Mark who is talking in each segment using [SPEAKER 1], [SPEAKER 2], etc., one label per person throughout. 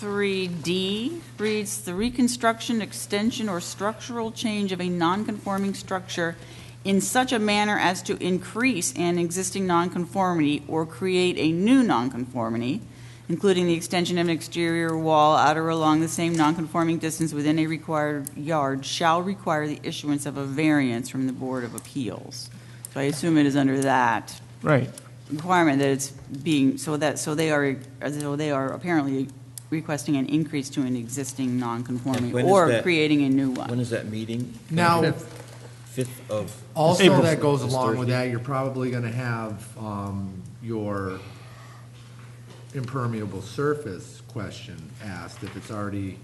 [SPEAKER 1] 2253D reads, "The reconstruction, extension, or structural change of a nonconforming structure in such a manner as to increase an existing nonconformity or create a new nonconformity, including the extension of an exterior wall out or along the same nonconforming distance within a required yard, shall require the issuance of a variance from the Board of Appeals." So I assume it is under that
[SPEAKER 2] Right.
[SPEAKER 1] requirement that it's being, so that, so they are, so they are apparently requesting an increase to an existing
[SPEAKER 3] And
[SPEAKER 1] nonconformity
[SPEAKER 3] when is
[SPEAKER 1] or
[SPEAKER 3] that-
[SPEAKER 1] creating a new
[SPEAKER 3] When
[SPEAKER 1] one.
[SPEAKER 3] is that meeting?
[SPEAKER 2] Now-
[SPEAKER 3] Fifth of,
[SPEAKER 2] April.
[SPEAKER 4] Also, that goes
[SPEAKER 3] This
[SPEAKER 4] along with
[SPEAKER 3] Thursday.
[SPEAKER 4] that, you're probably gonna have, um, your impermeable surface question asked if it's already,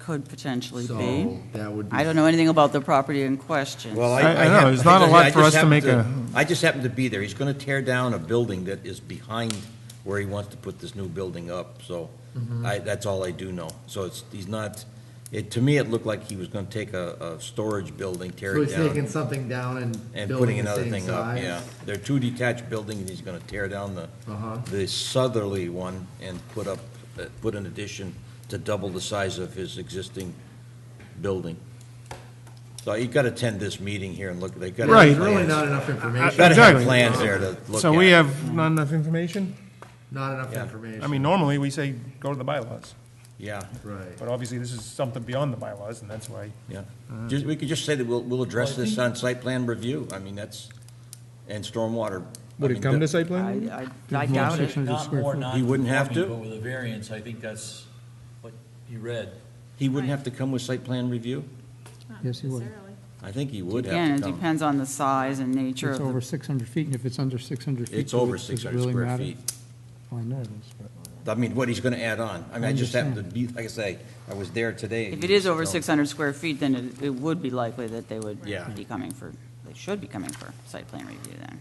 [SPEAKER 1] Could potentially be.
[SPEAKER 4] so that would be.
[SPEAKER 1] I don't know anything about the property in question.
[SPEAKER 3] well, I.
[SPEAKER 2] I- I know,
[SPEAKER 3] hap-
[SPEAKER 2] it's not a
[SPEAKER 3] I
[SPEAKER 2] lot
[SPEAKER 3] just
[SPEAKER 2] for us to
[SPEAKER 3] happened
[SPEAKER 2] make a-
[SPEAKER 3] I just happened to be there. He's gonna tear down a building that is behind where he wants to put this new building up, so
[SPEAKER 2] Mm-hmm.
[SPEAKER 3] I, that's all I do know. So it's, he's not, it, to me, it looked like he was gonna take a, a storage building, tear
[SPEAKER 4] So
[SPEAKER 3] it
[SPEAKER 4] he's taking
[SPEAKER 3] down,
[SPEAKER 4] something down and
[SPEAKER 3] and
[SPEAKER 4] building
[SPEAKER 3] putting
[SPEAKER 4] the
[SPEAKER 3] another
[SPEAKER 4] same
[SPEAKER 3] thing up,
[SPEAKER 4] size?
[SPEAKER 3] yeah. There are two detached buildings, and he's gonna tear down the,
[SPEAKER 4] Uh-huh.
[SPEAKER 3] the southerly one and put up, uh, put an addition to double the size of his existing building. So you gotta attend this meeting here and look, they gotta. have
[SPEAKER 2] Right.
[SPEAKER 4] There's really
[SPEAKER 3] plans.
[SPEAKER 4] not enough
[SPEAKER 3] Gotta
[SPEAKER 4] information,
[SPEAKER 3] have
[SPEAKER 2] Exactly.
[SPEAKER 3] plans there to look at.
[SPEAKER 2] So we have not enough information?
[SPEAKER 4] not enough
[SPEAKER 3] Yeah.
[SPEAKER 4] information.
[SPEAKER 2] I mean, normally, we say, go to the bylaws,
[SPEAKER 3] Yeah,
[SPEAKER 4] Right.
[SPEAKER 2] but obviously, this is something beyond the bylaws, and that's why.
[SPEAKER 3] yeah. Just, we could just say that we'll, we'll address this on site plan review. I mean, that's, and stormwater. I
[SPEAKER 2] Would
[SPEAKER 3] mean,
[SPEAKER 2] it come
[SPEAKER 3] that-
[SPEAKER 2] to site plan?
[SPEAKER 1] I, I I doubt it.
[SPEAKER 5] Not more
[SPEAKER 3] He wouldn't have to?
[SPEAKER 5] non-conforming, but with a variance, I think that's what you read.
[SPEAKER 3] He wouldn't have to come with site plan review?
[SPEAKER 6] Yes, he would.
[SPEAKER 3] I think he would
[SPEAKER 1] Again,
[SPEAKER 3] have
[SPEAKER 1] it
[SPEAKER 3] to come.
[SPEAKER 1] depends on the size and nature
[SPEAKER 6] It's
[SPEAKER 1] of the
[SPEAKER 6] over 600 feet, and if it's under 600 feet.
[SPEAKER 3] It's
[SPEAKER 6] does it-
[SPEAKER 3] over
[SPEAKER 6] does it
[SPEAKER 3] six hundred
[SPEAKER 6] really
[SPEAKER 3] square
[SPEAKER 6] matter?
[SPEAKER 3] feet.
[SPEAKER 6] Well, I know it is, but.
[SPEAKER 3] I mean, what he's gonna add on. I mean, I just happened to
[SPEAKER 6] Understand.
[SPEAKER 3] be, like I say, I was there today.
[SPEAKER 1] If it is over
[SPEAKER 3] so-
[SPEAKER 1] 600 square feet, then it- it would be likely that they would
[SPEAKER 3] Yeah.
[SPEAKER 1] be coming for, they should be coming for site plan review then.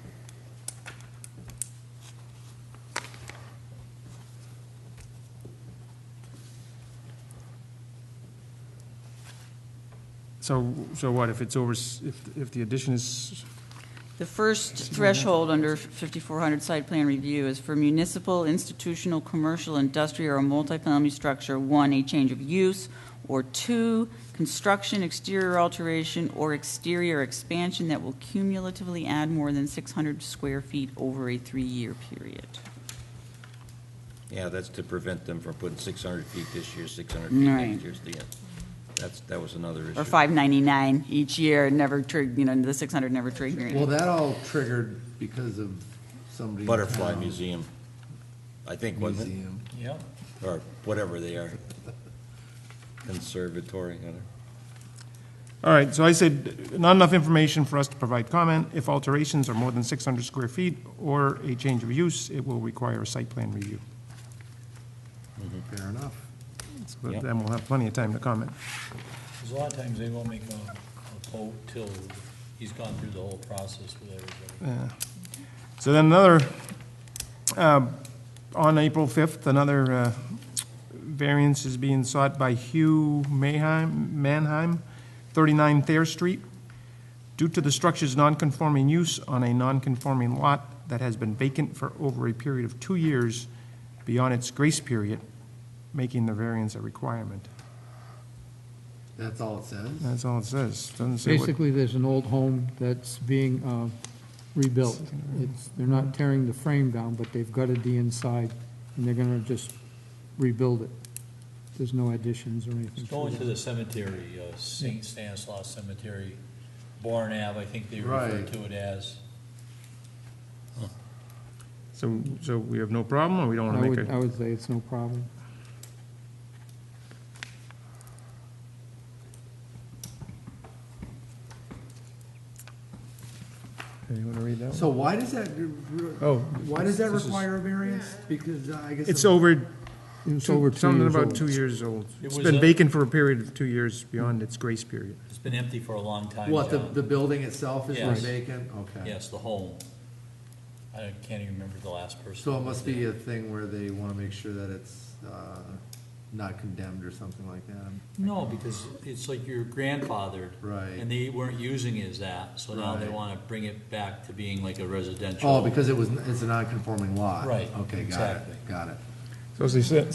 [SPEAKER 2] So, so what, if it's over, s- if, if the addition is,
[SPEAKER 1] The first threshold under 5400 site plan review is for municipal, institutional, commercial, industrial, or multifamily structure, one, a change of use, or two, construction, exterior alteration, or exterior expansion that will cumulatively add more than 600 square feet over a three-year period.
[SPEAKER 3] Yeah, that's to prevent them from putting six hundred feet this year, six hundred feet
[SPEAKER 1] Right.
[SPEAKER 3] next year. the- That's, that was another issue.
[SPEAKER 1] Or 599 each year, never trig, you know, the 600 never triggering.
[SPEAKER 4] Well, that all triggered because of somebody. in
[SPEAKER 3] Butterfly
[SPEAKER 4] town.
[SPEAKER 3] Museum, I think, wasn't
[SPEAKER 4] Museum.
[SPEAKER 5] Yeah.
[SPEAKER 3] it? Or whatever they are. Conservatory, I don't know.
[SPEAKER 2] all right, so I said, not enough information for us to provide comment. If alterations are more than 600 square feet or a change of use, it will require a site plan review.
[SPEAKER 3] Mm-hmm.
[SPEAKER 4] Fair enough.
[SPEAKER 2] So, But
[SPEAKER 3] Yep.
[SPEAKER 2] then we'll have plenty of time to comment.
[SPEAKER 5] Because a lot of times they won't make a, a quote till he's gone through the whole process with everybody.
[SPEAKER 2] So then another, uh, on April 5th, another uh, variance is being sought by Hugh Mayheim, Mannheim, 39 Thayer Street. Due to the structure's nonconforming use on a nonconforming lot that has been vacant for over a period of two years beyond its grace period, making the variance a requirement.
[SPEAKER 4] That's all it says?
[SPEAKER 2] That's all it says. Doesn't say what.
[SPEAKER 6] Basically, there's an old home that's being uh, rebuilt. It's, they're not tearing the frame down, but they've gutted the inside, and they're gonna just rebuild it. There's no additions or anything.
[SPEAKER 5] It's
[SPEAKER 6] to
[SPEAKER 5] going
[SPEAKER 6] it.
[SPEAKER 5] to the cemetery, uh, St. Stanislaus Cemetery, Bourne Ave, I think they refer
[SPEAKER 4] Right.
[SPEAKER 5] to it as.
[SPEAKER 2] So, so we have no problem, or we don't
[SPEAKER 6] I
[SPEAKER 2] want to make
[SPEAKER 6] would, I
[SPEAKER 2] a,
[SPEAKER 6] would say it's no problem.
[SPEAKER 2] Hey, you want to read that one?
[SPEAKER 4] So why does that,
[SPEAKER 2] Oh,
[SPEAKER 4] why does that
[SPEAKER 2] this is-
[SPEAKER 4] require a variance? Because uh, I guess.
[SPEAKER 2] It's
[SPEAKER 4] I'm-
[SPEAKER 2] over
[SPEAKER 6] It's
[SPEAKER 2] Two-
[SPEAKER 6] over two years
[SPEAKER 2] Something about
[SPEAKER 6] old.
[SPEAKER 2] two years old.
[SPEAKER 5] It
[SPEAKER 2] It's
[SPEAKER 5] was
[SPEAKER 2] been
[SPEAKER 5] a-
[SPEAKER 2] vacant for a period of two years beyond its grace period.
[SPEAKER 5] It's been empty for a long time,
[SPEAKER 4] What, the,
[SPEAKER 5] John.
[SPEAKER 4] the building itself is
[SPEAKER 5] Yes.
[SPEAKER 4] vacant? Okay.
[SPEAKER 5] Yes, the home. I can't even remember the last person.
[SPEAKER 4] So it must be a thing where they want to make sure that it's uh, not condemned or something like that.
[SPEAKER 5] No, because it's like your grandfathered.
[SPEAKER 4] Right.
[SPEAKER 5] And they weren't using it as that, so now they
[SPEAKER 4] Right.
[SPEAKER 5] wanna bring it back to being like a residential.
[SPEAKER 4] Oh, because it was, it's a non-conforming lot?
[SPEAKER 5] Right,
[SPEAKER 4] Okay, got
[SPEAKER 5] exactly.
[SPEAKER 4] it, got it.
[SPEAKER 2] So as they said,